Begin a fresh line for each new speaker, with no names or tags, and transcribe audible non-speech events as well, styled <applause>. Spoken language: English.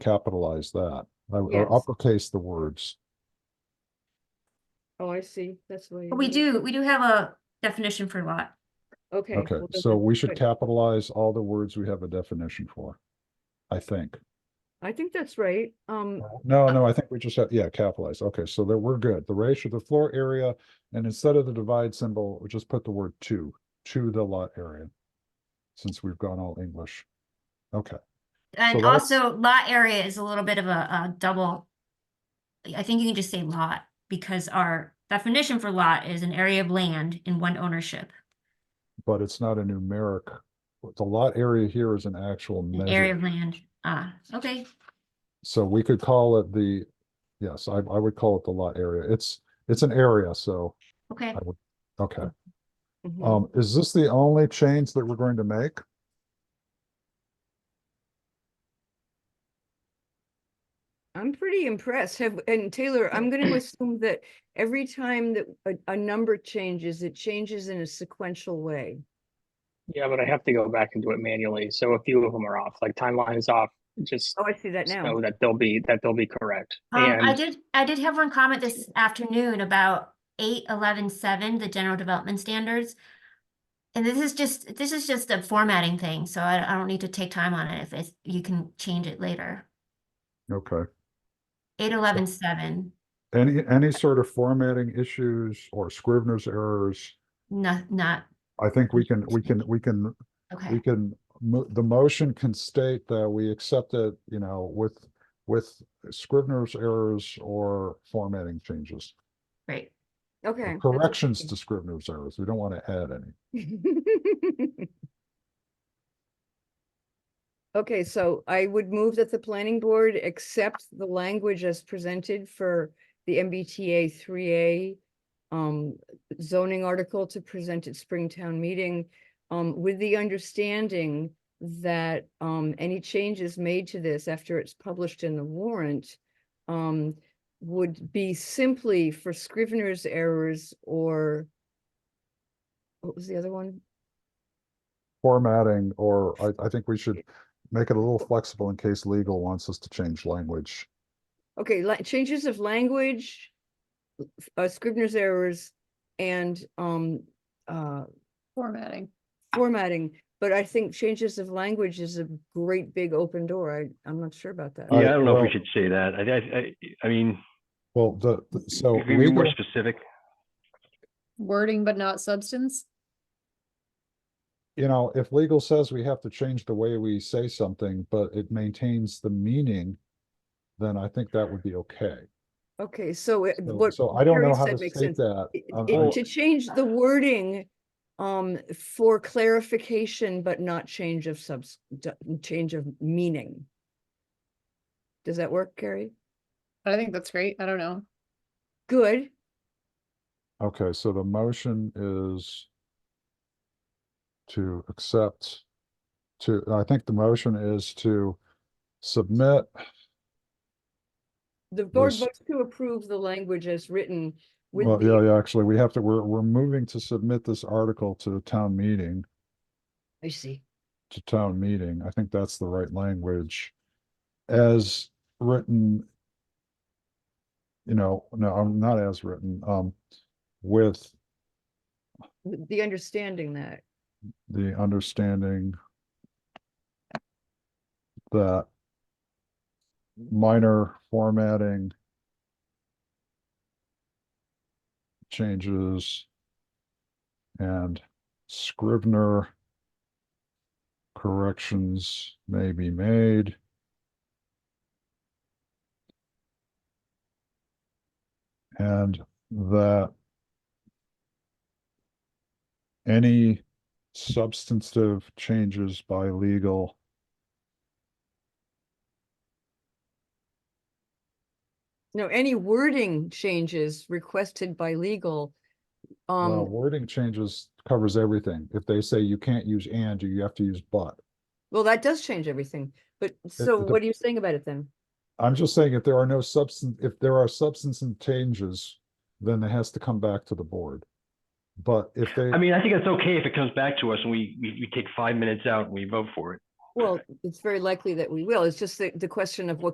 capitalize that, I-
Yes.
or uppercase the words.
Oh, I see. That's the way.
But we do, we do have a definition for lot.
Okay.
Okay,
well, then
so we
that's
should
good.
capitalize all the words we have a definition for, I think.
I think that's right. Um,
No, no, I think we just have, yeah, capitalize. Okay, so that we're good. The ratio, the floor area, and instead of the divide symbol, we just put the word to, to the lot area. Since we've gone all English. Okay,
And
that's-
also lot area is a little bit of a, a double. I think you can just say lot because our definition for lot is an area of land in one ownership,
but it's not a numeric, the lot area here is an actual
an area of
measure.
land. Ah, okay,
So we could call it the, yes, I, I would call it the lot area. It's, it's an area, so,
okay. Um,
okay.
mhm.
Um, is this the only change that we're going to make?
I'm pretty impressed. Have, and Taylor,
<clears throat>
I'm going to assume that every time that a, a number changes, it changes in a sequential way.
Yeah, but I have to go back and do it manually. So a few of them are off, like timeline is off. Just
Oh, I see that now.
so that they'll be, that they'll be correct.
Um, I
And
did, I did have one comment this afternoon about eight, eleven, seven, the general development standards. And this is just, this is just a formatting thing, so I, I don't need to take time on it if it's, you can change it later.
Okay.
Eight, eleven, seven,
Any, any sort of formatting issues or Scrivener's errors?
not, not,
I think we can, we can, we can, we
okay,
can, mo- the motion can state that we accept it, you know, with, with Scrivener's errors or formatting changes.
great.
or
Okay. that's what I
Corrections to Scrivener's errors. We don't want to add any.
think. <laughs> Okay, so I would move that the planning board accept the language as presented for the MBTA three A um, zoning article to present at Springtown meeting, um, with the understanding that, um, any changes made to this after it's published in the warrant, um, would be simply for Scrivener's errors or what was the other one?
Formatting, or I, I think we should make it a little flexible in case legal wants us to change language.
Okay, la- changes of language, l- f- uh, Scrivener's errors and, um, uh,
formatting.
formatting. But I think changes of language is a great big open door. I, I'm not sure about that.
Uh,
Yeah, I don't know
well-
if we should say that. I, I, I, I mean,
Well, the, the- so.
if we be more
legal-
specific.
Wording but not substance?
you know, if legal says we have to change the way we say something, but it maintains the meaning, then I think that would be okay.
Okay, so it-
So-
what.
So I don't know
Carrie
how
said
to
makes
state
sense.
that.
It-
Um,
it-
I-
To change the wording, um, for clarification, but not change of subs, d- change of meaning. Does that work, Carrie?
I think that's great. I don't know.
Good.
Okay, so the motion is to accept, to, I think the motion is to submit,
The board
Was-
votes to approve the language as written with
well,
the-
yeah, yeah, actually, we have to, we're, we're moving to submit this article to the town meeting,
I see.
to town meeting. I think that's the right language. As written, you know, no, I'm not as written, um, with
with The understanding that,
the understanding that minor formatting changes and Scrivener corrections may be made. And that any substantive changes by legal
no, any wording changes requested by legal.
well,
Um,
wording changes covers everything if they say you can't use and you have to use but
well, that does change everything, but so
it-
what are you saying about it then?
i'm just saying if there are no substance if there are substance and changes then it has to come back to the board but if they
I mean, I think it's okay if it comes back to us and we, we, we take five minutes out and we vote for it.
Well, it's very likely that we will. It's just the, the question of what